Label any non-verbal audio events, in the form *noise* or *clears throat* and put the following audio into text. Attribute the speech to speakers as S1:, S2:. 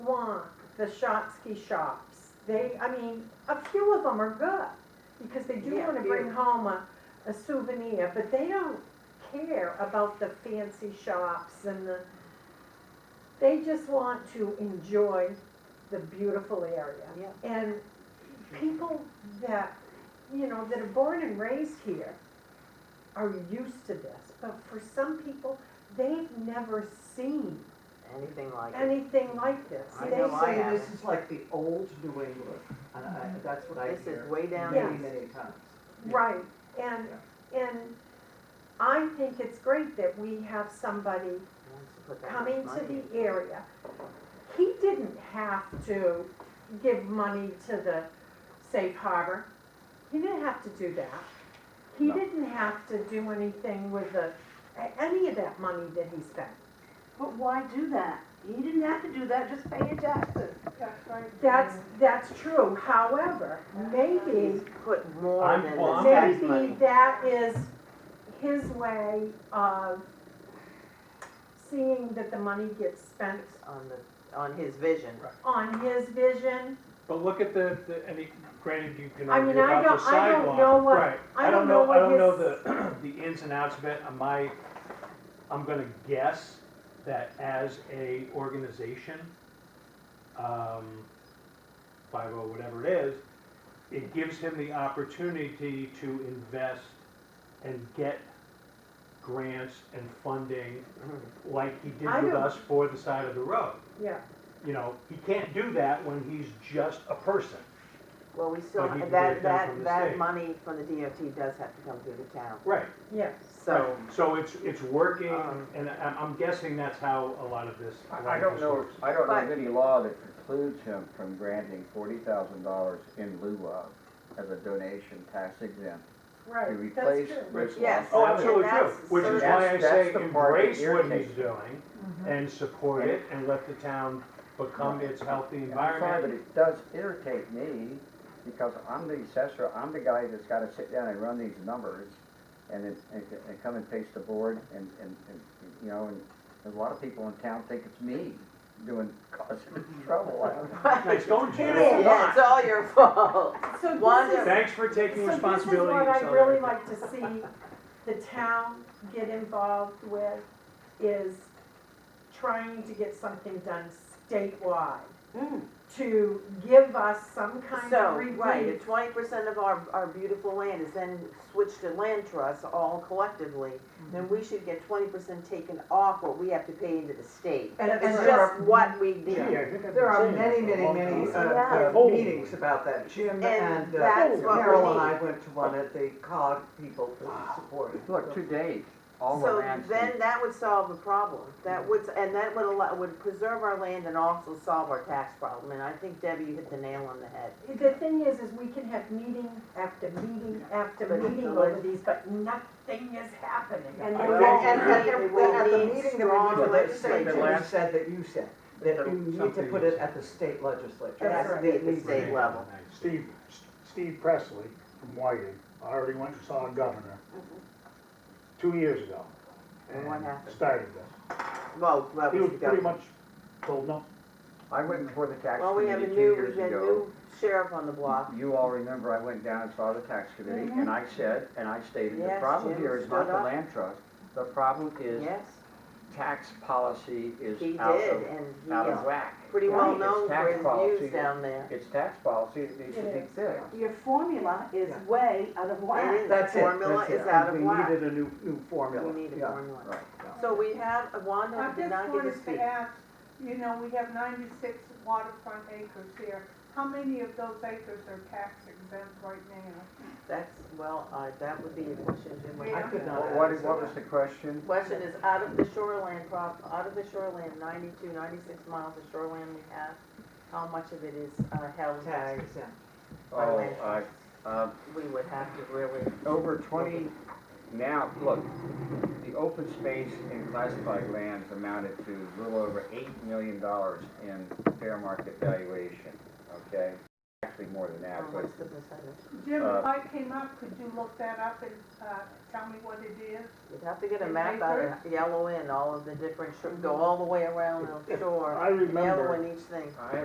S1: the Shotsky shops, they, I mean, a few of them are good, because they do
S2: Yeah,
S1: wanna
S2: few.
S1: bring home a, a souvenir, but they don't care about the fancy shops and the, they just want to enjoy the beautiful area.
S2: Yep.
S1: And people that, you know, that are born and raised here are used to this, but for some people, they've never seen
S3: anything like it.
S1: anything like this.
S3: I
S1: They
S3: know I
S1: say
S3: am.
S4: say this is like the old New England, and I, that's what I
S3: This is
S4: hear
S3: way down
S4: many,
S1: Yes.
S3: east.
S4: many times.
S1: Right, and, and I think it's great that we have somebody
S3: Wants to put that
S1: coming
S3: much
S1: to
S3: money.
S1: the area. He didn't have to give money to the safe harbor. He didn't have to do that. He
S4: No.
S1: didn't have to do anything with the, a- any of that money that he spent.
S2: But why do that? He didn't have to do that, just pay your taxes.
S1: That's, that's true, however, maybe
S3: He's put more
S5: I'm-
S3: than
S5: well,
S3: the
S5: I'm-
S3: tax
S1: Maybe
S3: money.
S1: that is his way of seeing that the money gets spent
S3: On the, on his vision.
S1: on his vision.
S5: But look at the, the, I mean, granted, you can
S1: I mean,
S5: argue
S1: I
S5: about the
S1: don't- I don't
S5: sidewalk.
S1: know what-
S5: Right.
S1: I don't know what
S5: I don't know
S1: his-
S5: the, the *clears throat* ins and outs of it. Am I, I'm gonna guess that as a organization, um, five oh, whatever it is, it gives him the opportunity to invest and get grants and funding
S3: Mm-hmm.
S5: like he did
S1: I
S5: with
S1: don't-
S5: us for the side of the road.
S1: Yeah,
S5: You know, he can't do that when he's just a person.
S3: Well, we still,
S5: But he can get
S3: that,
S5: it done from
S3: that,
S5: the
S3: that
S5: state.
S3: money from the DOT does have to come through the town,
S5: Right.
S1: yes.
S3: so.
S5: So it's, it's working,
S3: Um,
S5: and I- I'm guessing that's how a lot of this. a lot
S6: I I
S5: of
S6: don't
S5: this
S6: know,
S5: works.
S6: I don't know
S3: But-
S6: of any law that precludes him from granting forty thousand dollars in lieu of as a donation tax exempt to
S1: Right, that's
S6: replace
S1: true.
S6: Rich
S3: Yes.
S6: Lawson.
S5: Oh, absolutely
S3: And
S5: true,
S3: that's-
S5: which
S3: so
S5: is why I
S6: that's-
S5: say
S6: that's the part that
S5: embrace what he's
S6: irritates me.
S5: doing and support it and let the town become its healthy
S6: And I'm sorry, But
S5: environment.
S6: it does irritate me because I'm the assessor, I'm the guy that's gotta sit down and run these numbers and then, and, and come and face the board and, and, and, you know, and there's a lot of people in town think it's me doing, *laughs* causing trouble.
S3: *laughs*
S6: I don't-
S5: It's going to
S1: It
S5: you.
S1: is.
S3: Yeah, it's all your *laughs* fault.
S1: So this
S3: Wanda-
S1: is,
S5: Thanks for taking
S1: so this is
S5: responsibility.
S1: what
S5: and
S1: I'd really
S5: solidarity.
S1: like to see the town get involved with, is trying to get something done statewide
S3: Mm.
S1: to give us some kind
S3: So,
S1: of
S3: right,
S1: relief
S3: if twenty percent of our, our beautiful land is then switched to land trusts all collectively,
S1: Mm-hmm.
S3: then we should get twenty percent taken off what we have to pay into the state.
S4: And
S3: It's
S4: there
S3: just
S4: are,
S3: what we need.
S4: there are many, many, many,
S3: Yeah.
S4: uh, uh, meetings about that. Jim
S3: And
S4: and uh,
S3: that's what we
S4: Carol and
S3: need.
S4: I went to one at the COG people that supported.
S6: Look, to date, all the
S3: So
S6: lands.
S3: then that would solve the problem. That would, and that would allow, would preserve our land and also solve our tax problem. And I think Debbie, you hit the nail on the head.
S1: The thing is, is we can have meeting after meeting after
S3: But
S1: meeting
S3: no
S1: over
S3: one-
S1: these, but nothing is happening.
S4: And
S3: I
S4: at
S3: will need-
S4: the-
S3: we will
S4: at the
S3: need
S4: meeting that we
S3: strong
S4: went to legislature, you
S3: legislatures.
S4: said that you said, that you need to
S5: Something
S4: put
S5: is-
S4: it at the state legislature.
S1: That's
S4: That
S1: right.
S4: it
S3: The
S4: needs to
S3: state
S4: be.
S3: level.
S7: Steve, Steve Presley from Whiting, I already went and saw a governor two years ago.
S3: And what happened?
S7: Started this.
S3: Well, that
S7: He
S3: was
S7: was
S3: the
S7: pretty
S3: government.
S7: much told no.
S6: I went before the tax
S3: Well, we have a
S6: committee two
S3: new,
S6: years
S3: we have a
S6: ago.
S3: new sheriff on the block.
S6: You all remember I went down and saw the tax committee and I said, and I stated, the
S3: Mm-hmm. Yes,
S6: problem
S3: Jim
S6: here is
S3: stood
S6: not the
S3: up.
S6: land trust. The problem is
S3: Yes,
S6: tax policy is
S3: he did,
S6: out of,
S3: and he
S6: out of
S3: is
S6: whack.
S3: pretty
S6: Yeah.
S3: well
S6: It's
S3: known
S6: tax
S3: for his
S6: policy.
S3: views down there.
S6: It's tax policy that needs to
S1: It
S6: be
S1: is.
S6: fixed.
S2: Your formula is
S4: Yeah.
S2: way out of
S3: It
S2: whack.
S3: is.
S4: That's it.
S3: Formula
S4: that's
S3: is
S4: it.
S3: out of whack.
S4: We needed a new, new formula.
S3: We need a
S4: yeah.
S3: formula.
S6: Right.
S3: So we have, Wanda
S8: I
S3: did
S8: just
S3: not get
S8: wanted
S3: to speak.
S8: to ask, you know, we have ninety-six waterfront acres here. How many of those acres are tax exempt right now?
S3: That's, well, uh, that would be a question, Jim. would
S4: I
S3: have
S4: could
S3: to-
S4: not
S6: What, what
S4: answer
S6: what was
S4: that.
S6: the question?
S3: Question is, out of the shoreland prop, out of the shoreland, 92, 96 miles of shoreland we have, how much of it is uh, held
S4: Tax
S3: by
S4: exempt.
S6: Oh,
S3: land?
S6: I, um,
S3: We would have to really,
S6: over twenty, now, look, the open space and classified lands amounted to a little over eight million dollars in fair market valuation, okay? Actually, more than
S3: uh,
S6: that, but
S3: what's the percentage?
S8: Jim,
S6: Uh,
S8: if I came up, could you look that up and, uh, tell me what it is?
S3: You'd have to get a
S8: In
S3: map out
S8: acres?
S3: and yellow in all of the different, shore- go all the way around the shore,
S7: I remember.
S3: yellow in each thing.
S6: I